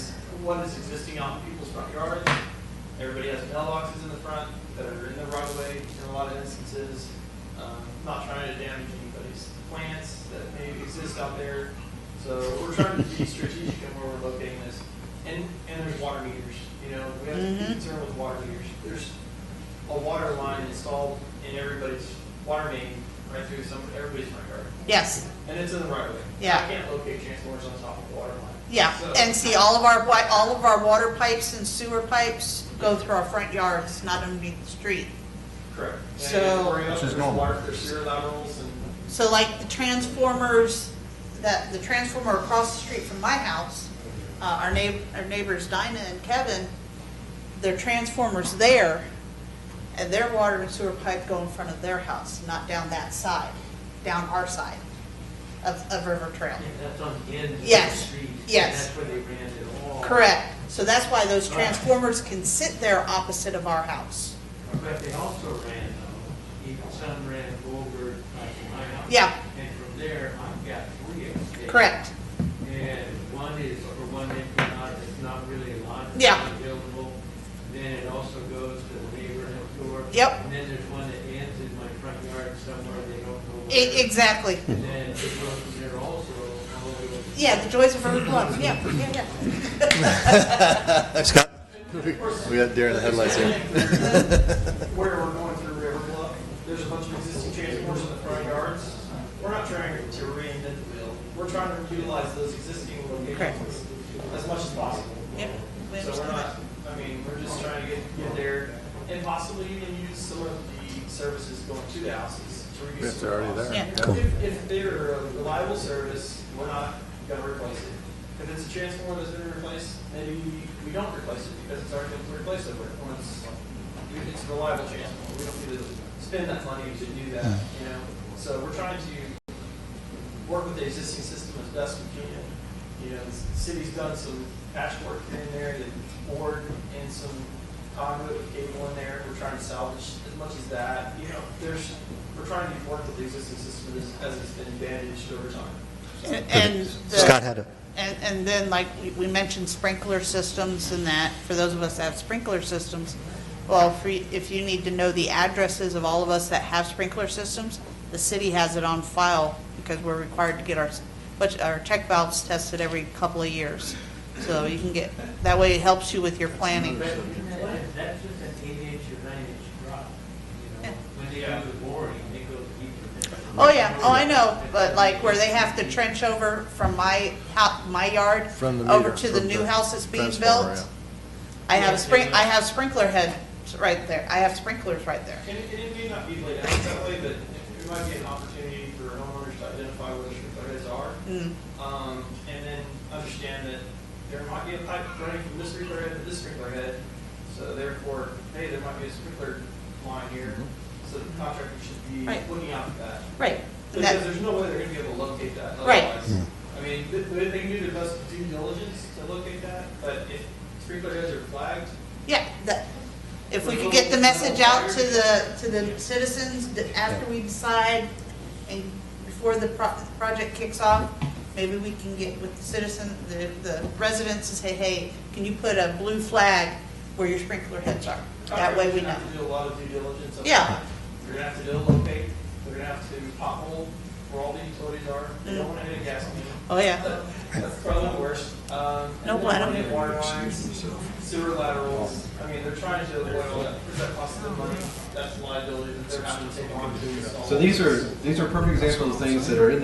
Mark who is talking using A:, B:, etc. A: one that's existing out in people's front yards. Everybody has mailboxes in the front that are in the right of way in a lot of instances. Um, Not trying to damage anybody's plants that may exist out there. So we're trying to be strategic in where we're locating this. And, and there's water meters, you know, we have to
B: Mm-hmm.
A: be concerned with water meters. There's a water line installed in everybody's water main right through some, everybody's front yard.
B: Yes,
A: And it's in the right of way.
B: Yeah.
A: I can't locate transformers on top of a water line.
B: yeah,
A: So-
B: and see, all of our, wa- all of our water pipes and sewer pipes go through our front yards, not underneath the street.
A: Correct. And
B: So-
A: you worry about
C: Which is
A: there's
C: normal.
A: water- There's sewer laterals and,
B: So like the transformers, that, the transformer across the street from my house, uh, our neigh, our neighbors Dinah and Kevin, their transformer's there, and their water and sewer pipe go in front of their house, not down that side, down our side of, of River Trail.
D: That's on the end of the
B: Yes,
D: street. and
B: yes.
D: That's where they ran it all.
B: Correct, so that's why those transformers can sit there opposite of our house.
D: But they also ran, though, even some ran over, like in my house.
B: Yeah.
D: And from there, I've got three of them.
B: Correct,
D: And one is for one empty lot, it's not really a lot. it's
B: Yeah.
D: not Buildable. Then it also goes to the neighbor next door.
B: Yep.
D: And then there's one that ends in my front yard somewhere, they don't know where.
B: E- exactly.
D: And then it goes from there also, all the way over
B: Yeah, the joys of urban love, yeah, yeah, yeah.
C: Scott?
A: of course,
C: We got deer in the headlights here.
A: where we're going through River Bluff, there's a bunch of existing transformers in the front yards. We're not trying to reinvent the wheel. We're trying to utilize those existing
B: Correct.
A: locations as much as possible.
B: Yep, we
A: So we're
B: understand
A: not, I mean, we're just trying to get, get there and possibly even use some of the services going to the houses to reduce.
C: If
A: some
C: they're already
A: costs.
C: there.
B: Yeah.
C: Cool.
A: If, if they're a reliable service, we're not gonna replace it. If it's a transformer that's been replaced, maybe we don't replace it because it's already been replaced over. Once, it's a reliable transformer, we don't need to spend that money to do that, you know? So we're trying to work with the existing system as best we can. You know, the city's done some patchwork here and there, the board and some conduit with cable in there, we're trying to salvage as much as that, you know, there's, we're trying to work with the existing system as, as it's been damaged over time.
B: And- And. the-
C: Scott had a,
B: And, and then like we- we mentioned sprinkler systems and that, for those of us that have sprinkler systems, well, if we- if you need to know the addresses of all of us that have sprinkler systems, the city has it on file because we're required to get our, but our check valves tested every couple of years. So you can get, that way it helps you with your planning.
D: But That's just an eight inch or nine inch drop, you know, when they do the boring, they go deeper.
B: Oh, yeah, oh, I know, but like where they have to trench over from my, hou- my yard
C: from the meter.
B: over to the
C: from
B: new house that's being
C: transformer,
B: built.
C: yeah.
B: I have spring, I have sprinkler heads right there, I have sprinklers right there.
A: And it, and it may not be laid out that way, but it might be an opportunity for homeowners to identify where the sprinkler heads are.
B: Mm,
A: Um, and then understand that there might be a pipe running from this sprinkler head to this sprinkler head, so therefore, hey, there might be a sprinkler line here, so the contractor should be
B: Right.
A: looking out for that.
B: Right. And
A: Because
B: that-
A: there's no way they're gonna be able to locate that
B: Right.
A: otherwise. I mean, they, they they can do their best due diligence to locate that, but if sprinkler heads are flagged,
B: Yeah, that, if we could get the message out to the, to the citizens that after we decide and before the pro- project kicks off, maybe we can get with the citizen, the, the residents and say, hey, can you put a blue flag where your sprinkler heads are? That way we
A: contractors
B: know.
A: have to do a lot of due diligence. up
B: Yeah.
A: front. They're gonna have to locate, they're gonna have to pothole where all the utilities are, they don't wanna hit a gas main.
B: Oh, yeah.
A: That's probably the worst. Um, and
B: No,
A: then
B: I don't-
A: running Water lines, sewer laterals, I mean, they're trying to avoid all that, because that costs them money, that's liability that they're having to take on to install.
E: So these are, these are perfect examples of things that are in the